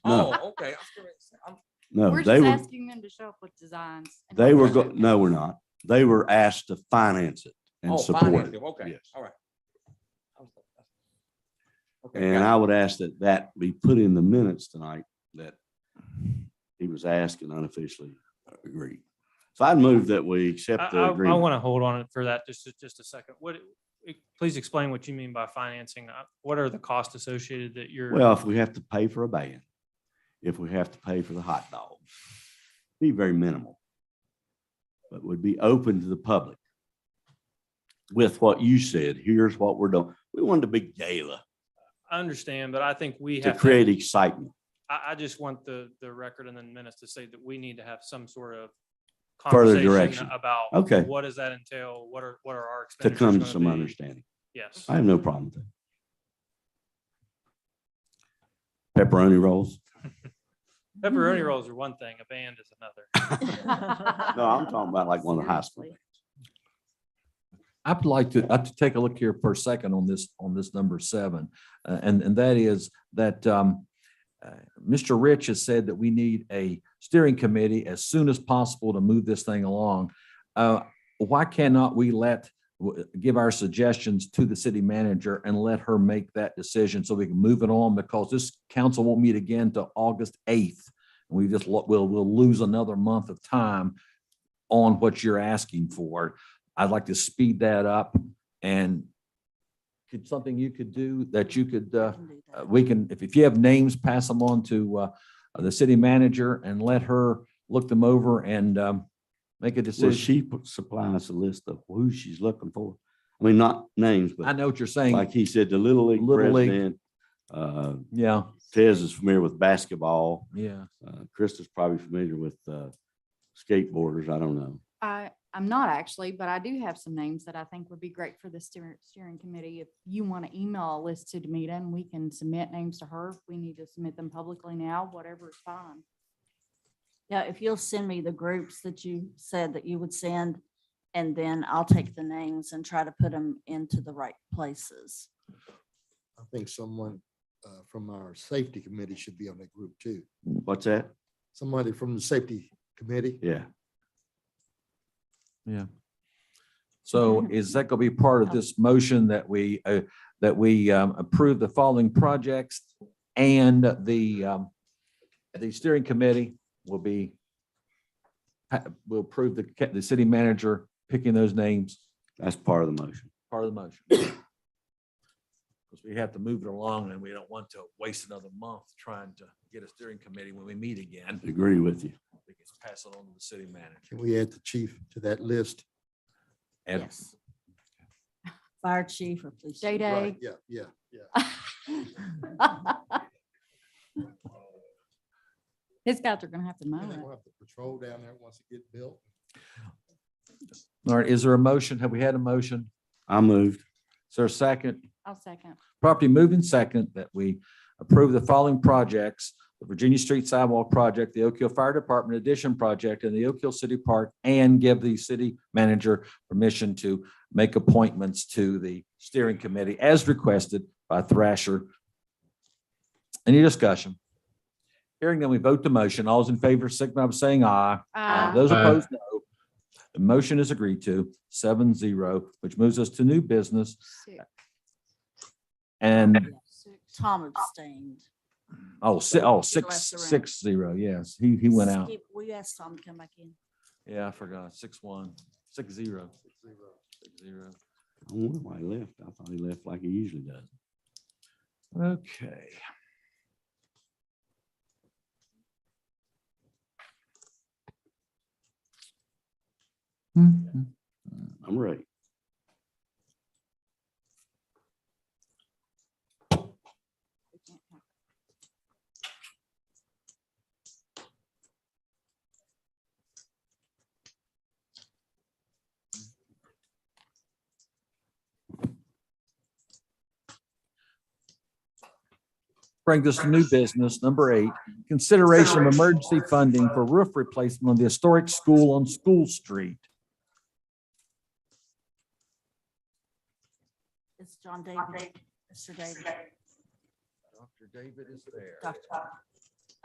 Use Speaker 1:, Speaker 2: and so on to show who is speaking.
Speaker 1: Oh, okay. I'm curious. I'm-
Speaker 2: No,
Speaker 3: We're
Speaker 2: they
Speaker 3: just
Speaker 2: were,
Speaker 3: asking them to show up with designs. and
Speaker 2: they were,
Speaker 3: what
Speaker 2: go-
Speaker 3: they're
Speaker 2: no, we're not. They were asked to finance it
Speaker 1: oh,
Speaker 2: and
Speaker 1: finance
Speaker 2: support
Speaker 1: them,
Speaker 2: it.
Speaker 1: Okay,
Speaker 2: Yes.
Speaker 1: all right. I was like, that's- Okay,
Speaker 2: And
Speaker 1: got
Speaker 2: I would ask that that be put in the minutes tonight that he was asked and unofficially agreed. So I'd move that we
Speaker 4: I,
Speaker 2: accept
Speaker 4: I-
Speaker 2: the
Speaker 4: I
Speaker 2: agreement.
Speaker 4: want to hold on it for that just, just a second. What, e, please explain what you mean by financing. Uh, What are the costs associated that you're?
Speaker 2: Well, if we have to pay for a band, if we have to pay for the hot dog, be very minimal. But would be open to the public. With what you said, here's what we're doing. We wanted a big gala
Speaker 4: I understand, but I think we
Speaker 2: to
Speaker 4: have, to-
Speaker 2: create excitement
Speaker 4: I, I just want the, the record and then minutes to say that we need to have some sort of
Speaker 2: Further
Speaker 4: conversation
Speaker 2: direction.
Speaker 4: About.
Speaker 2: Okay.
Speaker 4: What does that entail? What are, what are our
Speaker 2: to
Speaker 4: expenditures?
Speaker 2: come to
Speaker 4: gonna
Speaker 2: some
Speaker 4: be?
Speaker 2: understanding.
Speaker 4: Yes.
Speaker 2: I have no problem with that. Pepperoni rolls?
Speaker 4: Pepperoni rolls are one thing, a band is another.
Speaker 3: doing.
Speaker 2: No, I'm talking about like one of the high school.
Speaker 3: Seriously.
Speaker 5: I'd like to, I'd like to take a look here for a second on this, on this number seven. Uh, and, and that is that, um, uh, Mr. Rich has said that we need a steering committee as soon as possible to move this thing along. Uh, why cannot we let, w- give our suggestions to the city manager and let her make that decision so we can move it on? Because this council won't meet again till August eighth. And we just, lo- we'll, we'll lose another month of time on what you're asking for. I'd like to speed that up and could something you could do that you could, uh,
Speaker 3: Can do
Speaker 5: uh,
Speaker 3: that.
Speaker 5: we can, if, if you have names, pass them on to, uh, the city manager and let her look them over and, um, make a
Speaker 2: So
Speaker 5: decision.
Speaker 2: she put- supplies a list of who she's looking for. I mean, not names,
Speaker 5: I
Speaker 2: but
Speaker 5: know what you're
Speaker 2: like
Speaker 5: saying.
Speaker 2: he said, the Little League
Speaker 5: Little League.
Speaker 2: president, uh,
Speaker 5: Yeah,
Speaker 2: Tez is familiar with basketball.
Speaker 5: yeah.
Speaker 2: Uh, Krista's probably familiar with uh, skateboarders. I don't know.
Speaker 3: I, I'm not actually, but I do have some names that I think would be great for the steering, steering committee. If you want to email a list to Demita and we can submit names to her, if we need to submit them publicly now, whatever is fine.
Speaker 6: Yeah, if you'll send me the groups that you said that you would send, and then I'll take the names and try to put them into the right places.
Speaker 7: I think someone uh, from our safety committee should be on that group too.
Speaker 2: What's that?
Speaker 7: Somebody from the safety committee.
Speaker 2: Yeah.
Speaker 5: So is that gonna be part of this motion that we, uh, that we, um, approve the following projects and the, um, the steering committee will be ha- will approve the, ca- the city manager picking those names,
Speaker 2: That's part of the motion.
Speaker 5: part of the motion. Because we have to move it along and we don't want to waste another month trying to get a steering committee when we meet again.
Speaker 2: Agree with you.
Speaker 5: We can pass it on to the city manager.
Speaker 7: Can we add the chief to that list?
Speaker 5: And
Speaker 6: Yes. Fire chief or police. chief.
Speaker 3: Day-Day.
Speaker 7: Right, Yeah, yeah, yeah.
Speaker 3: His guys are gonna have to mow
Speaker 7: And they
Speaker 3: it.
Speaker 7: will have to patrol down there once it get built.
Speaker 5: All right, is there a motion? Have we had a motion?
Speaker 2: I moved.
Speaker 5: Is there a second?
Speaker 3: I'll second.
Speaker 5: Property moved and second that we approve the following projects, the Virginia Street Sidewalk Project, the Oak Hill Fire Department Addition Project, and the Oak Hill City Park, and give the city manager permission to make appointments to the steering committee as requested by Thrasher. Any discussion? Hearing then we vote the motion. All those in favor, signify by saying aye.
Speaker 3: Uh,
Speaker 5: Those
Speaker 4: Aye.
Speaker 5: opposed, no. The motion is agreed to, seven zero, which moves us to new business
Speaker 3: six.
Speaker 5: and
Speaker 6: Tom abstained.
Speaker 5: Oh, si- oh, six,
Speaker 6: left the room.
Speaker 5: six, zero, yes, he, he went out.
Speaker 6: Skip- We asked Tom to come back in.
Speaker 5: Yeah, I forgot, six, one, six, zero, six, zero.
Speaker 2: I wonder why he left. I thought he left like he usually does.
Speaker 5: Okay. Mhm.
Speaker 2: I'm ready.
Speaker 3: We can't have-
Speaker 5: Bring this to new business, number eight, consideration of emergency funding for roof replacement on the historic school on School Street.
Speaker 6: It's John David, Mr. David.
Speaker 5: Dr. David is there.
Speaker 6: Dr.